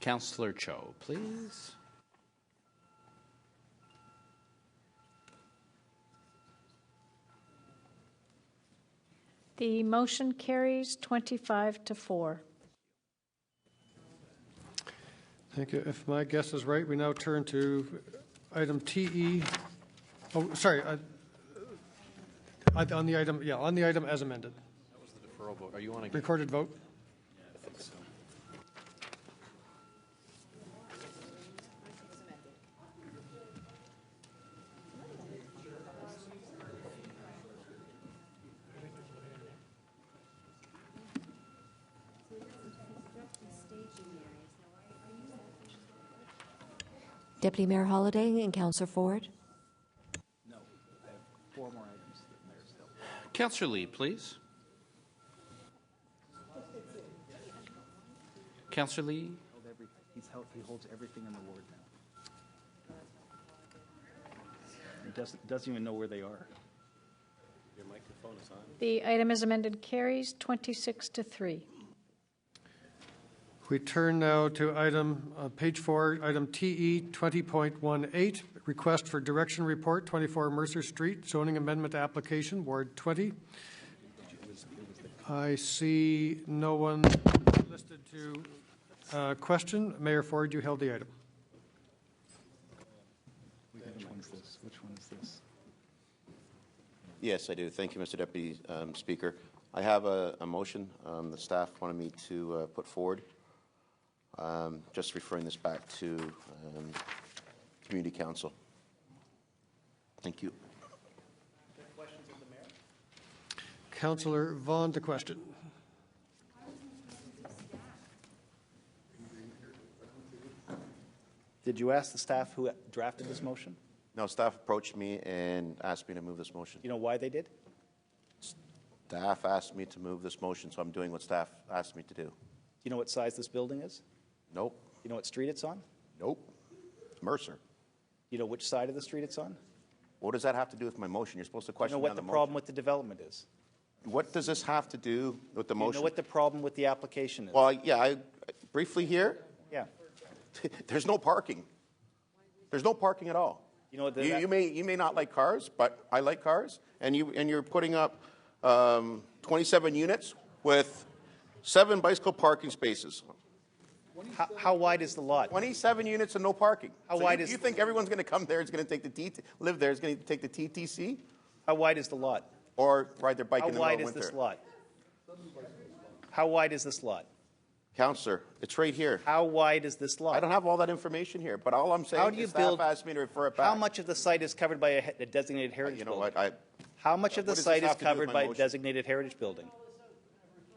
Counselor Cho, please. The motion carries 25 to 4. Thank you. If my guess is right, we now turn to item TE, oh, sorry, I- I- on the item, yeah, on the item as amended. Deferral vote. Are you on again? Recorded vote? I think so. Deputy Mayor Holliday and Councillor Ford. Counselor Lee, please. Counselor Lee, held every, he's held, he holds everything in the ward now. He doesn't, doesn't even know where they are. The item as amended carries 26 to 3. We turn now to item, uh, page four, item E TE 20.18, request for direction report, 24 Mercer Street, zoning amendment application, Ward 20. I see no one listed to uh, question. Mayor Ford, you held the item. Which one's this? Which one is this? Yes, I do. Thank you, Mr. Deputy um, Speaker. I have a, a motion um, the staff wanted me to uh, put forward. Um, Just referring this back to um, Community Council. Thank you. Councillor Vaughn to question. Did you ask the staff who drafted this motion? Now, staff approached me and asked me to move this motion. You know why they did? Staff asked me to move this motion, so I'm doing what staff asked me to do. You know what size this building is? Nope, You know what street it's on? nope. Mercer. You know which side of the street it's on? What does that have to do with my motion? You're supposed to You know question me what on the the problem motion. with the development is? What does this have to do with the You know motion? what the problem with the application is? Well, yeah, I briefly here, Yeah. There's no parking. There's no parking at all. You know what the- you, you may you may not like cars, but I like cars, and you and you're putting up um, 27 units with seven bicycle parking spaces. How, how wide is the lot? 27 units and no parking. How So wide you, is- you think everyone's going to come there? Is going to take the TT, live there? Is going to take the TTC How wide is the lot? or ride their bike How in the middle wide of is winter? this lot? How wide is this lot? Counselor, it's right here. How wide is this lot? I don't have all that information here, but all I'm saying How do you is staff build- asked me to refer it back. How much of the site is covered by a he- a designated heritage Uh, You know building? what? I, How much of the What does this site is have to do with covered my by a motion? designated heritage building?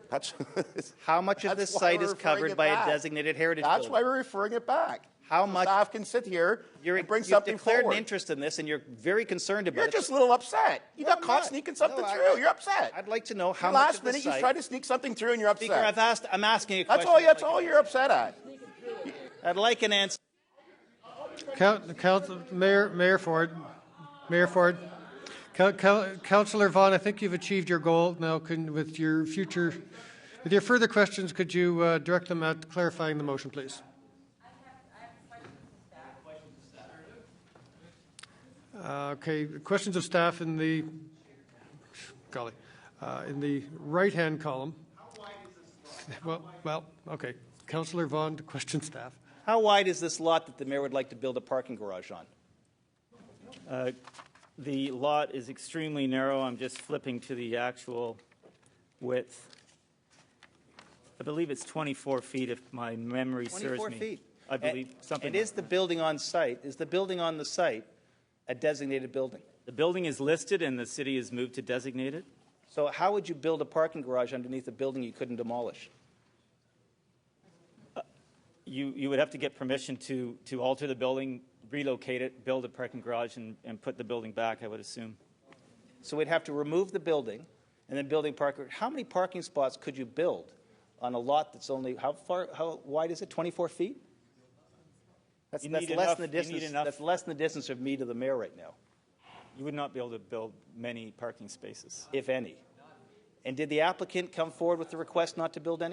that's. How much of this That's why site we're is referring covered it by a back. designated heritage That's why building? we're referring it back. How So much- Staff can sit here You're, and bring you've something declared forward. an interest in this, and you're very concerned about You're it. just a little upset. You No, got I'm caught not. sneaking something No, I- through. You're upset. I'd like to know how Your much last of this minute you site- tried to sneak something through, and you're upset. Speaker, I've asked, I'm asking a that's question. all. That's all you're upset at. I'd like an answer. Count, count, Mayor, Mayor Ford, Mayor Ford, Coun- Coun- Councillor Vaughn, I think you've achieved your goal. Now, can, with your future, with your further questions, could you uh, direct them at clarifying the motion, please? Uh, Okay, questions of staff in the, golly, uh, in the right-hand column. Well, well, okay. Councillor Vaughn to question staff. How wide is this lot that the mayor would like to build a parking garage on? Uh, The lot is extremely narrow. I'm just flipping to the actual width. I believe it's 24 feet if my memory serves 24 me. feet. I believe And- something. And is like the building on site, is the building on the site a designated building? that. The building is listed and the city has moved to designate it. So how would you build a parking garage underneath a building you couldn't demolish? You, you would have to get permission to, to alter the building, relocate it, build a parking garage and, and put the building back, I would assume. So we'd have to remove the building and then building parking. How many parking spots could you build on a lot that's only, how far, how wide is it, 24 feet? That's, You that's need less enough- than the you need distance, enough- that's less than the distance of me to the mayor right now, You would not be able to build many parking spaces. if any. And did the applicant come forward with the request not to build any?